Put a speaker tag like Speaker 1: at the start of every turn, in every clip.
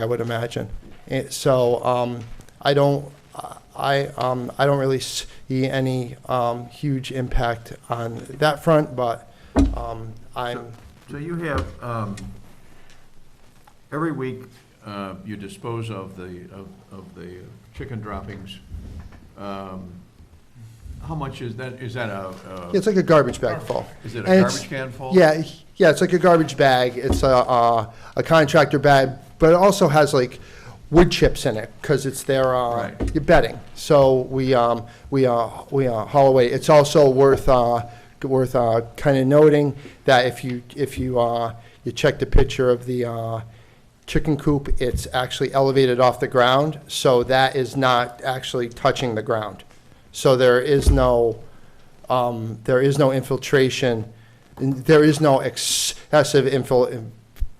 Speaker 1: I would imagine. And so um, I don't, I, um, I don't really see any um, huge impact on that front, but um, I'm,
Speaker 2: So you have, um, every week, uh, you dispose of the, of of the chicken droppings. Um, How much is that, is that a, a-
Speaker 1: it's like a garbage bag full.
Speaker 2: is it a
Speaker 1: and it's-
Speaker 2: garbage can full?
Speaker 1: Yeah, yeah, it's like a garbage bag. It's a, a, a contractor bag, but it also has like wood chips in it because it's their uh,
Speaker 2: Right.
Speaker 1: your bedding. So we um, we uh, we uh, haul away. It's also worth uh, worth uh, kind of noting that if you if you uh, you check the picture of the uh, chicken coop, it's actually elevated off the ground, so that is not actually touching the ground. So there is no um, there is no infiltration, there is no excessive infil-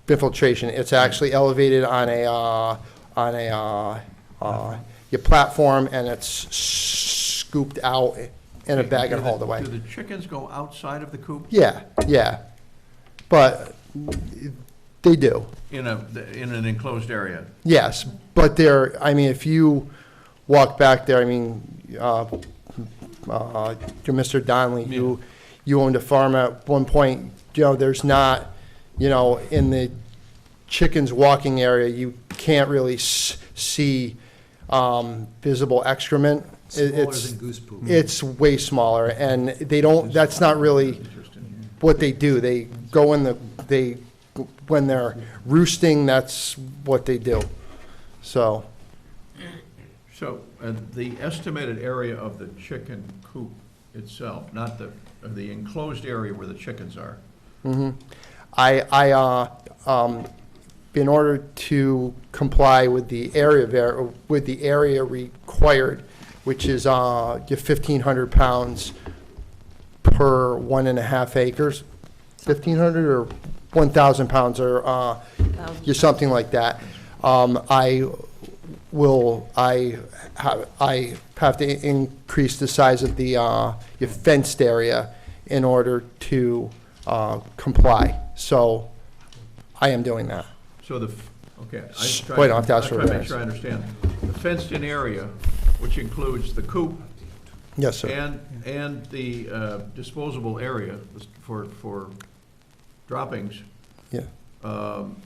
Speaker 1: infiltration. It's actually elevated on a, uh, on a, uh, uh, your platform, and it's scooped out in a bag and hauled away.
Speaker 2: Do the chickens go outside of the coop?
Speaker 1: Yeah, yeah. But they do.
Speaker 2: In a, in an enclosed area?
Speaker 1: Yes, but there, I mean, if you walk back there, I mean, uh, uh, to Mr. Donnelly, you, you owned a farm at one point, you know, there's not, you know, in the chickens walking area, you can't really s- see, um, visible excrement. It-
Speaker 3: Smaller
Speaker 1: It's,
Speaker 3: than goose poop.
Speaker 1: it's way smaller, and they don't, that's not really what they do. They go in the, they, when they're roosting, that's what they do. So,
Speaker 2: So, uh, the estimated area of the chicken coop itself, not the, the enclosed area where the chickens are?
Speaker 1: mm-hmm. I, I, uh, um, in order to comply with the area ver, with the area required, which is, uh, your fifteen hundred pounds per one and a half acres, fifteen hundred or one thousand pounds or, uh, you something like that. Um, I will, I have, I have to i- increase the size of the, uh, your fenced area in order to, uh, comply. So I am doing that.
Speaker 2: So the, f- okay. I just try-
Speaker 1: Wait, I'll have to ask for
Speaker 2: I'm trying to make
Speaker 1: variance.
Speaker 2: sure I understand. The fenced-in area, which includes the coop
Speaker 1: Yes, sir.
Speaker 2: and, and the uh, disposable area for, for droppings,
Speaker 1: Yeah.
Speaker 2: um,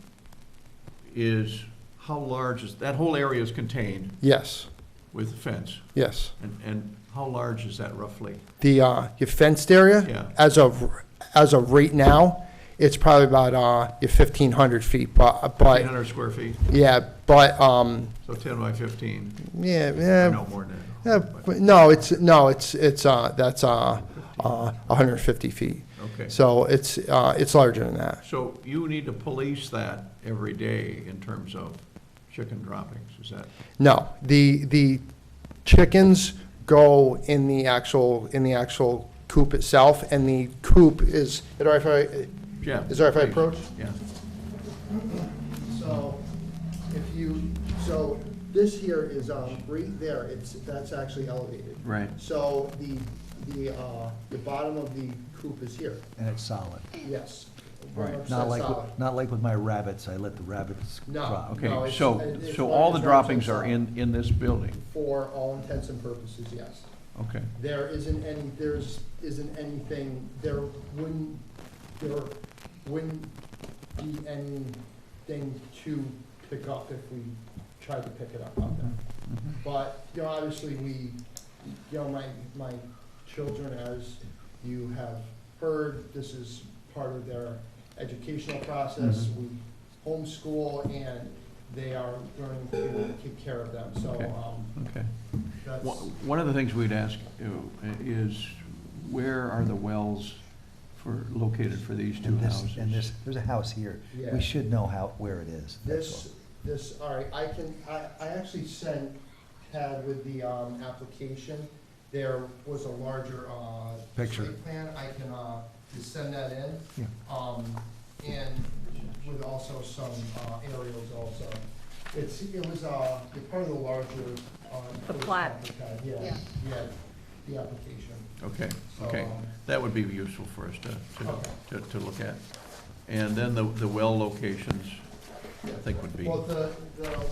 Speaker 2: is, how large is, that whole area is contained
Speaker 1: Yes,
Speaker 2: with the fence?
Speaker 1: yes.
Speaker 2: And, and how large is that roughly?
Speaker 1: The, uh, your fenced area?
Speaker 2: Yeah.
Speaker 1: As of, as of right now, it's probably about, uh, your fifteen hundred feet, but,
Speaker 2: Eight
Speaker 1: but,
Speaker 2: hundred square feet,
Speaker 1: yeah, but, um,
Speaker 2: so ten by fifteen,
Speaker 1: yeah,
Speaker 2: or
Speaker 1: yeah.
Speaker 2: no more than
Speaker 1: Yeah,
Speaker 2: that.
Speaker 1: but no, it's, no, it's, it's, uh, that's, uh, uh, hundred and fifty feet.
Speaker 2: Okay.
Speaker 1: So it's, uh, it's larger than that.
Speaker 2: So you need to police that every day in terms of chicken droppings, is that?
Speaker 1: No, the, the chickens go in the actual, in the actual coop itself, and the coop is, is it all right if
Speaker 2: Yeah.
Speaker 1: I, is it all right if I
Speaker 2: please.
Speaker 1: approach?
Speaker 2: Yeah.
Speaker 1: So if you, so this here is, um, right there, it's, that's actually elevated.
Speaker 2: Right.
Speaker 1: So the, the, uh, the bottom of the coop is here,
Speaker 3: And it's solid.
Speaker 1: yes.
Speaker 3: Not like, with- not like with my rabbits, I let the rabbits
Speaker 1: No.
Speaker 3: crop.
Speaker 1: No,
Speaker 2: Okay,
Speaker 1: it's-
Speaker 2: so,
Speaker 1: it- it's
Speaker 2: so
Speaker 1: not-
Speaker 2: all
Speaker 1: it's not
Speaker 2: the droppings
Speaker 1: so
Speaker 2: are in, in this building?
Speaker 1: For all intents and purposes, yes.
Speaker 2: Okay,
Speaker 1: There isn't any, there's, isn't anything, there wouldn't, there wouldn't be anything to pick up if we tried to pick it up out there.
Speaker 3: Mm-hmm.
Speaker 2: Mm-hmm,
Speaker 1: But, you know, obviously, we, you know, my, my children, as you have heard, this is part of their educational process.
Speaker 3: Mm-hmm.
Speaker 1: We homeschool, and they are learning to take care of them, so,
Speaker 2: Okay.
Speaker 1: um,
Speaker 2: okay.
Speaker 1: that's.
Speaker 2: One one of the things we'd ask you is, where are the wells for, located for these two
Speaker 3: And this,
Speaker 2: houses?
Speaker 3: and this, there's a house here.
Speaker 1: Yeah.
Speaker 3: We should know how, where it is. that's
Speaker 1: This, this, all right, I can, I, I actually sent, had with the, um, application, there was a larger, uh,
Speaker 3: Picture.
Speaker 1: site plan, I can, uh, just send that in.
Speaker 3: Yeah.
Speaker 1: Um, and with also some, uh, aerials also. It's, it was, uh, it's part of the larger, uh.
Speaker 4: The plat.
Speaker 1: first applicant, Yeah,
Speaker 4: Yeah.
Speaker 1: yeah, the application.
Speaker 2: Okay,
Speaker 1: So,
Speaker 2: okay.
Speaker 1: um,
Speaker 2: That would be useful for us to, to,
Speaker 1: Okay.
Speaker 2: to, to look at. And then the, the well locations, I think would be.
Speaker 1: Well, the, the